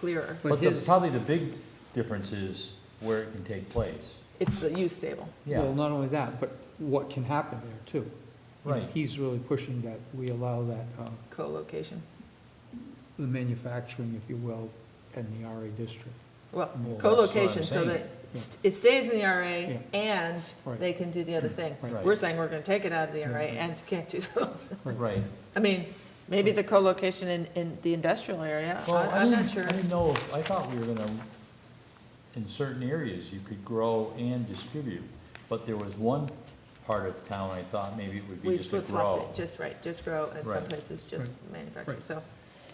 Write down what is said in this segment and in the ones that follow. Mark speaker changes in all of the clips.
Speaker 1: clearer.
Speaker 2: But
Speaker 3: But
Speaker 2: the-
Speaker 3: his,
Speaker 2: probably the big difference is where it can take place.
Speaker 1: It's the use table.
Speaker 3: well, not only that, but what can happen there too. And
Speaker 2: Right.
Speaker 3: He's really pushing that, we allow that, um,
Speaker 1: co-location.
Speaker 3: the manufacturing, if you will, in the RA district.
Speaker 1: Well,
Speaker 2: Well, that's what I'm
Speaker 1: co-location, so
Speaker 2: saying.
Speaker 1: that st- it stays in the RA
Speaker 3: Yeah.
Speaker 1: and
Speaker 3: Right.
Speaker 1: they can do the other thing.
Speaker 3: Right.
Speaker 1: We're saying we're gonna take it out of the
Speaker 3: Yeah.
Speaker 1: RA and you can't do,
Speaker 2: Right.
Speaker 1: I mean, maybe the co-location in, in the industrial area, I-
Speaker 2: Well, I
Speaker 1: I'm not
Speaker 2: didn't,
Speaker 1: sure.
Speaker 2: I didn't know, if- I thought we were gonna, in certain areas, you could grow and distribute. But there was one part of town I thought maybe it would be
Speaker 1: We
Speaker 2: just a
Speaker 1: flip
Speaker 2: grow.
Speaker 1: flopped it, just right, just grow and some
Speaker 2: Right.
Speaker 1: places just manufacture,
Speaker 3: Right.
Speaker 1: so.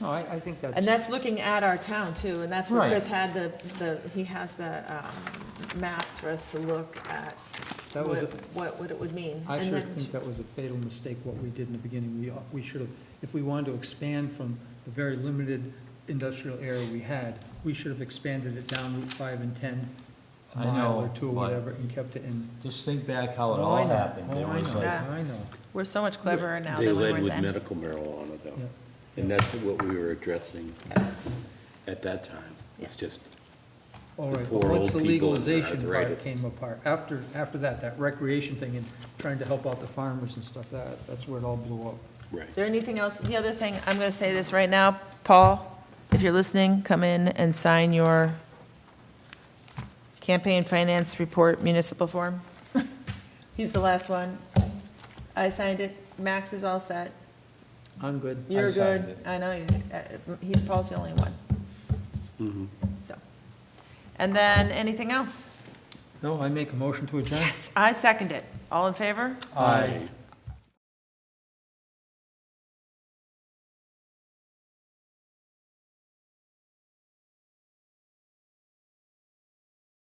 Speaker 3: No, I, I think that's.
Speaker 1: And that's looking at our town too, and that's where
Speaker 2: Right.
Speaker 1: Chris had the, the, he has the, um, maps for us to look at
Speaker 3: That
Speaker 1: what,
Speaker 3: was
Speaker 1: what, what it would mean.
Speaker 3: I
Speaker 1: And
Speaker 3: sure
Speaker 1: then-
Speaker 3: think that was a fatal mistake, what we did in the beginning. We, ought- we should have, if we wanted to expand from the very limited industrial area we had, we should have expanded it down Route 5 and 10, a
Speaker 2: I
Speaker 3: mile or
Speaker 2: know,
Speaker 3: two or
Speaker 2: but-
Speaker 3: whatever, and kept it in.
Speaker 2: Just think back how it
Speaker 3: Oh, I
Speaker 2: all
Speaker 3: know.
Speaker 2: happened.
Speaker 3: Oh,
Speaker 2: There
Speaker 3: I
Speaker 2: was
Speaker 3: know,
Speaker 2: like,
Speaker 1: Yeah.
Speaker 3: I know.
Speaker 1: We're so much cleverer now
Speaker 4: They
Speaker 1: than we
Speaker 4: led
Speaker 1: were
Speaker 4: with
Speaker 1: then.
Speaker 4: medical marijuana, though,
Speaker 3: Yeah.
Speaker 4: and that's what we were addressing
Speaker 1: Yes.
Speaker 4: at that time. It's
Speaker 1: Yes.
Speaker 4: just,
Speaker 3: All
Speaker 4: The
Speaker 3: right, but
Speaker 4: poor
Speaker 3: once
Speaker 4: old
Speaker 3: the
Speaker 4: people and their
Speaker 3: legalization part
Speaker 4: arthritis.
Speaker 3: came apart, after, after that, that recreation thing and trying to help out the farmers and stuff, that, that's where it all blew up.
Speaker 1: Is
Speaker 4: right.
Speaker 1: there anything else? The other thing, I'm going to say this right now, Paul, if you're listening, come in and sign your campaign finance report municipal form. He's the last one. I signed it. Max is all set.
Speaker 3: I'm good.
Speaker 1: You're
Speaker 2: signed
Speaker 1: good.
Speaker 2: it.
Speaker 1: I know, you- uh, he, Paul's the only one,
Speaker 2: Mm-hmm.
Speaker 4: Mhm.
Speaker 1: so. And then, anything else?
Speaker 3: No, I make a motion to adjourn.
Speaker 1: Yes, I second it. All in favor?
Speaker 3: Aye.